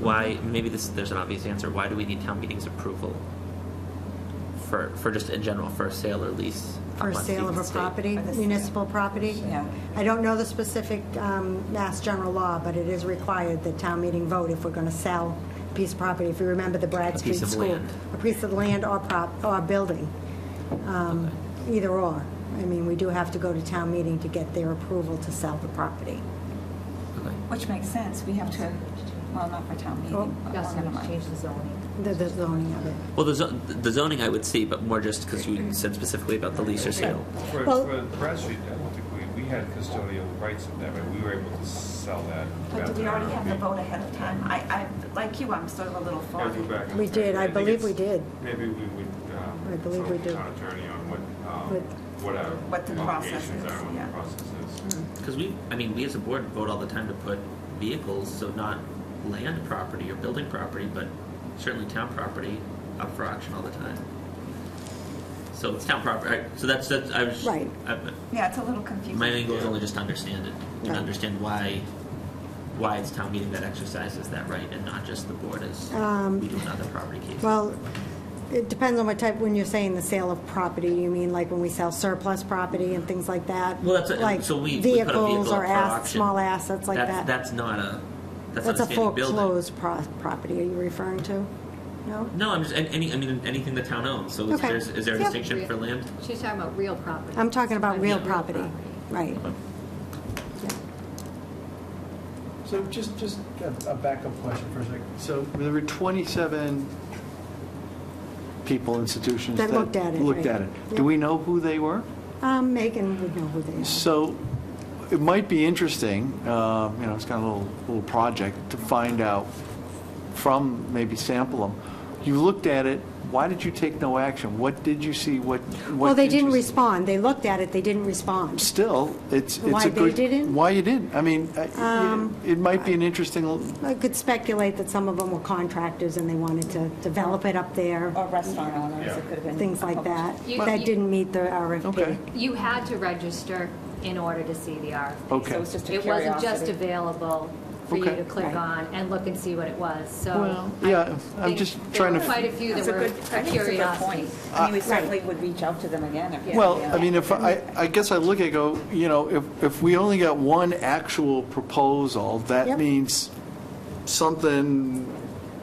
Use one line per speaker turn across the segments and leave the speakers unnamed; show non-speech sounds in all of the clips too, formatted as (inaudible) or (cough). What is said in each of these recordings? why maybe this there's an obvious answer why do we need town meetings approval for for just in general for a sale or lease
For
upon
sale of
Stevens
a
Estate?
property,
Or the-
municipal property?
Yeah.
I don't know the specific um, mass general law, but it is required that town meeting vote if we're going to sell a piece of property. If you remember the Brad
A
Street
piece of
School.
land.
A piece of land or prop, or building, Um, either or. I mean, we do have to go to town meeting to get their approval to sell the property.
okay.
Which makes sense, we have to, well, not for town meeting, but
Yes,
never
and
mind.
change the zoning.
The the zoning of it.
well the, zo- the zoning I would see but more just because you said specifically about the lease or sale
For,
Well-
for Brad Street, I don't think we, we had custodial rights in that, but we were able to sell that.
But
back
did we
to
already have the
RMB.
vote ahead of time? I, I, like you, I'm sort of a little
I have to
foggy.
go back and
We
check.
did. I
think
believe we
it's-
did.
Maybe we would, um.
I believe
consult
we
the
did.
Town attorney on what, um,
With-
what our.
What the process
obligations
is,
are, what
yeah.
the process
Mm.
is.
because we I mean we as a board vote all the time to put vehicles so not land property or building property but certainly town property up for auction all the time so it's town property so that's that's I was
Right.
I-
Yeah, it's a little confusing.
My main goal is only just to understand it and
Right.
understand why why it's town meeting that exercises that right and not just the board as
Um,
we do in other property cases.
Well, it depends on what type, when you're saying the sale of property, you mean like when we sell surplus property and things like that?
Well, that's a,
Like
so we, we put a
vehicles
vehicle
or
up for
ass-
auction.
small assets like
that's,
that?
That's not a that's,
That's
not
a
a standing building.
foreclosed pro- property, are you referring to? No?
No, I'm just an- any I mean anything the town owns. So is,
Okay.
there, is there a
Yep.
distinction for land?
She's talking about real property.
I'm talking about
Sometimes
real
it's
property, right.
So just, just a- a backup question for a second. So there were 27 people, institutions
That
that...
looked at it, right.
Looked at it.
Yep.
Do we know who they were?
Um, Megan would know who they are.
So it might be interesting, uh, you know, it's kind of a little, little project, to find out from, maybe sample them. You looked at it, why did you take no action? What did you see, what? what
Well, they didn't
interested-
respond, they looked at it, they didn't respond.
Still, it's, it's a good...
Why they didn't?
Why you didn't? I mean, I-
Um,
it might be an interesting l-
I could speculate that some of them were contractors and they wanted to develop it up there,
Or restaurant owners, it could have been.
things like that,
You-
that
you-
didn't meet the RFP.
Okay.
You had to register in order to see the RFP.
Okay. So it
was just a
It wasn't just
curiosity.
available for you
Oh. Okay.
to click
Right.
on and look and see what it was, so.
Well,
I
yeah, I'm
think
just
there
trying
were
to-
Quite a few that
That's a
were
good, I think it's a good
curiosity.
point. Uh, I mean, we certainly would reach out to them again if.
Well, I mean, if, I, I guess I look at, it, go, you know, if, if we only got one actual proposal,
Yep.
that means something,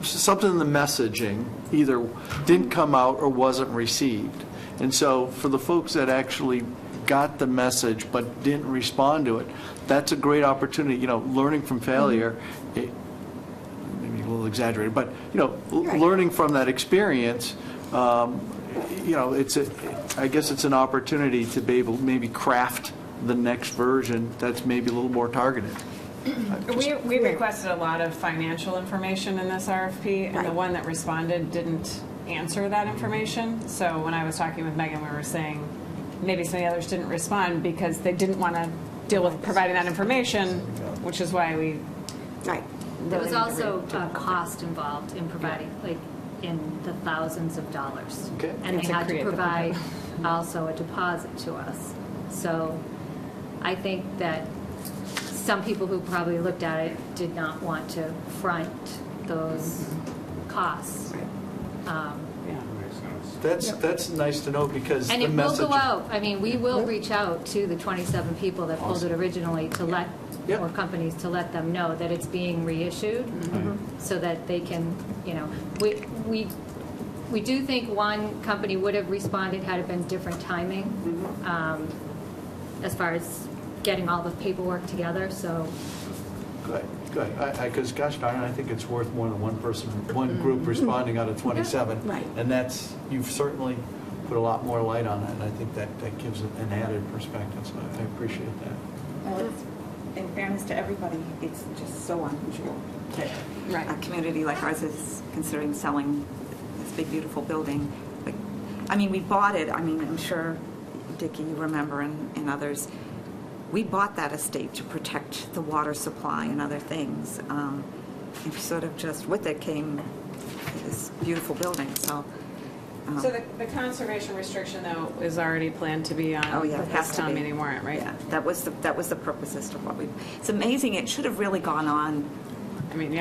something in the messaging either didn't come out or wasn't received. And so for the folks that actually got the message but didn't respond to it, that's a great opportunity, you know, learning from failure,
Mm-hmm.
it- maybe a little exaggerated, but, you know, l-
Right.
learning from that experience, um, you know, it's a, I guess it's an opportunity to be able, to maybe craft the next version that's maybe a little more targeted.
We, we requested a lot of financial information in this RFP, and the
Right.
one that responded didn't answer that information. So when I was talking with Megan, we were saying, maybe some of the others didn't respond because they didn't want to deal with providing that information, which is why we
Right.
There was also a cost involved in providing, like, in the thousands of dollars.
Okay.
And they
To
had to
create
(laughs)
the
provide also a deposit to us. So I think that some people who probably looked at it did not want to front those costs. Um,
Makes sense.
That's, that's nice to know because
And
the
it will
message.
go out, I mean, we will reach out to the 27 people that pulled it originally to let,
Yep.
or companies to let them know that it's being reissued,
Mm-hmm.
so that they can, you know, we, we, we do think one company would have responded had it been different timing, um, as far as getting all the paperwork together, so
Good, good. Because gosh darn, it, I think it's worth more than one person, one group responding out of 27.
right.
And that's, you've certainly put a lot more light on it, and I think that, that gives it an added perspective, so I appreciate that.
In fairness to everybody, it's just so unusual that a community like ours is considering selling this big, beautiful building. Like, I mean, we bought it, I mean, I'm sure, Dickie, you remember, and, and others, we bought that estate to protect the water supply and other things. Um, And sort of just with it came this beautiful building, so. um,
So the, the conservation restriction, though, is already planned to be on
Oh, yeah, it has
this
to
town
be.
meeting warrant, right?
Yeah, that was the, that was the purpose as to what we, it's amazing, it should have really gone on
I mean, yeah,